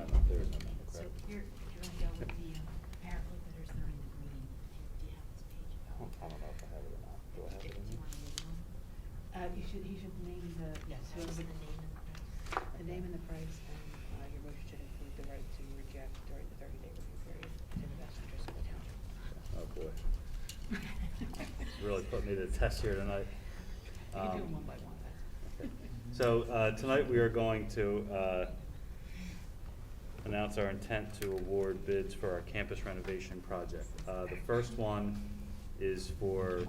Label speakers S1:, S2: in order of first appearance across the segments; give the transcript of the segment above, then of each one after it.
S1: um, Uh, uh,
S2: really put me to the test here tonight.
S1: You can do
S2: Um,
S1: them one by one.
S2: okay. So uh, tonight, we are going to uh, announce our intent to award bids for our campus renovation project. Uh, The first one is for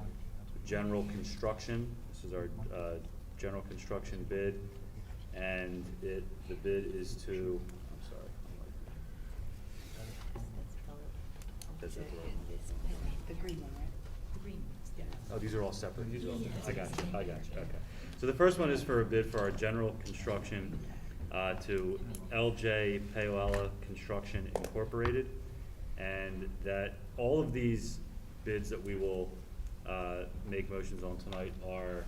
S2: general construction. This is our uh, general construction bid. And it, the bid is to, I'm sorry. That's it.
S1: The green one, right? The green, yes.
S2: Oh, these are all separate?
S3: These are all separate.
S2: I got you, I got you, okay. So the first one is for a bid for our general construction uh, to LJ Payola Construction Incorporated. And that, all of these bids that we will uh, make motions on tonight are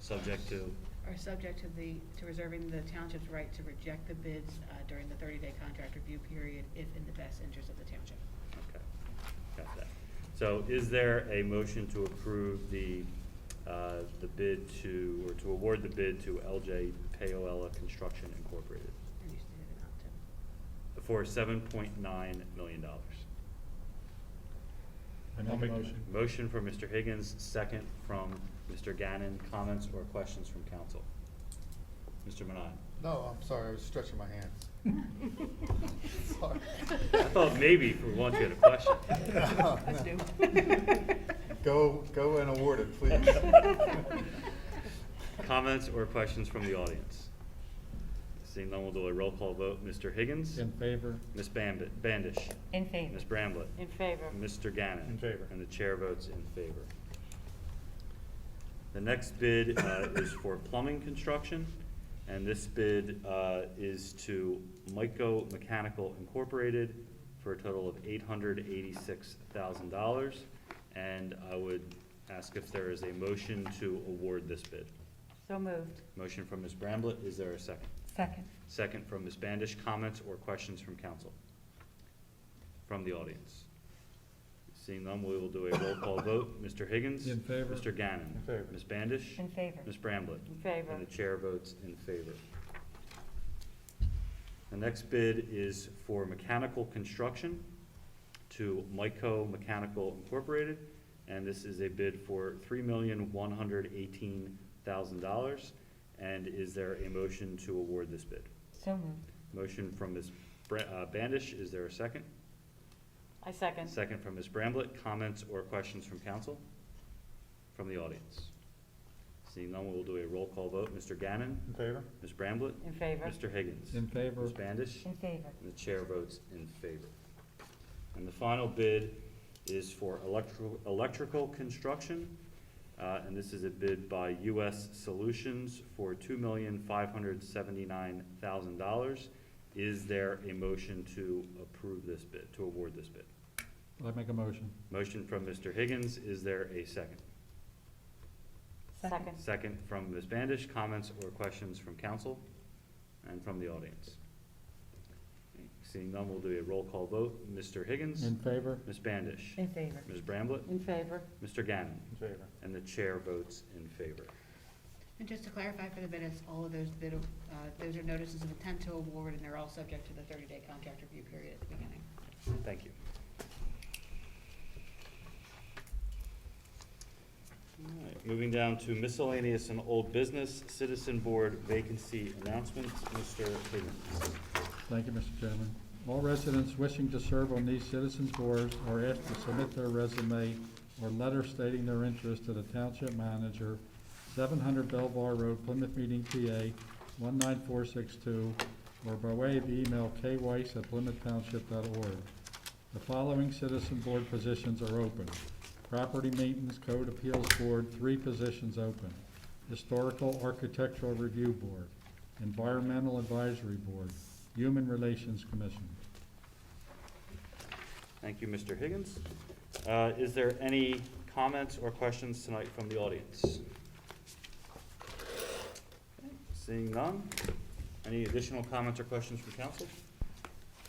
S2: subject to,
S1: Are subject to the, to reserving the township's right to reject the bids uh, during the thirty-day contract review period if in the best interest of the township.
S2: okay, got that. So is there a motion to approve the, uh, the bid to, or to award the bid to LJ Payola Construction Incorporated?
S1: And you stated it not to.
S2: for seven point nine million dollars.
S3: I make a motion.
S2: Motion from Mr. Higgins, second from Mr. Gannon. Comments or questions from council? Mr. Manon?
S4: No, I'm sorry, I was stretching my hands. Sorry.
S2: I thought maybe for once you had a question.
S4: No,
S1: Us
S4: no.
S1: do.
S4: Go, go and award it, please.
S2: Comments or questions from the audience? Seeing none, we'll do a roll call vote. Mr. Higgins?
S3: In favor?
S2: Ms. Bambi- Bandish?
S5: In favor.
S2: Ms. Bramblett?
S5: In favor.
S2: Mr. Gannon?
S3: In favor.
S2: And the chair votes in favor. The next bid uh, is for plumbing construction, and this bid uh, is to Myco Mechanical Incorporated for a total of eight hundred eighty-six thousand dollars. And I would ask if there is a motion to award this bid.
S5: So moved.
S2: Motion from Ms. Bramblett, is there a second?
S5: Second.
S2: Second from Ms. Bandish. Comments or questions from council? From the audience? Seeing none, we will do a roll call vote. Mr. Higgins?
S3: In favor.
S2: Mr. Gannon?
S3: In favor.
S2: Ms. Bandish?
S5: In favor.
S2: Ms. Bramblett?
S5: In favor.
S2: And the chair votes in favor. The next bid is for mechanical construction to Myco Mechanical Incorporated, and this is a bid for three million, one hundred eighteen thousand dollars. And is there a motion to award this bid?
S5: So moved.
S2: Motion from Ms. Bra- uh, Bandish, is there a second?
S5: I second.
S2: Second from Ms. Bramblett, comments or questions from council? From the audience? Seeing none, we'll do a roll call vote. Mr. Gannon?
S3: In favor?
S2: Ms. Bramblett?
S5: In favor.
S2: Mr. Higgins?
S3: In favor?
S2: Ms. Bandish?
S5: In favor.
S2: And the chair votes in favor. And the final bid is for electrical, electrical construction. uh, and this is a bid by US Solutions for two million five hundred seventy-nine thousand dollars. Is there a motion to approve this bid, to award this bid?
S3: I make a motion.
S2: Motion from Mr. Higgins, is there a second?
S5: Second.
S2: Second from Ms. Bandish, comments or questions from council and from the audience? Seeing none, we'll do a roll call vote. Mr. Higgins?
S3: In favor?
S2: Ms. Bandish?
S5: In favor.
S2: Ms. Bramblett?
S5: In favor.
S2: Mr. Gannon?
S3: In favor.
S2: And the chair votes in favor.
S1: And just to clarify for the minutes, all of those bid, uh, those are notices of intent to award, and they're all subject to the thirty-day contract review period at the beginning.
S2: Thank you. All right, Moving down to miscellaneous and old business, citizen board vacancy announcements, Mr. Higgins.
S3: Thank you, Mr. Chairman. All residents wishing to serve on these citizens' boards are asked to submit their resume or letter stating their interest to the township manager, seven hundred Belvoir Road, Plymouth Meeting, PA, one nine four six two, or by way of email, kweiss@plymouthtownship.org. The following citizen board positions are open. Property Maintenance Code Appeals Board, three positions open. Historical Architectural Review Board, Environmental Advisory Board, Human Relations Commission.
S2: Thank you, Mr. Higgins. Uh, Is there any comments or questions tonight from the audience? Okay, Seeing none. Any additional comments or questions from council?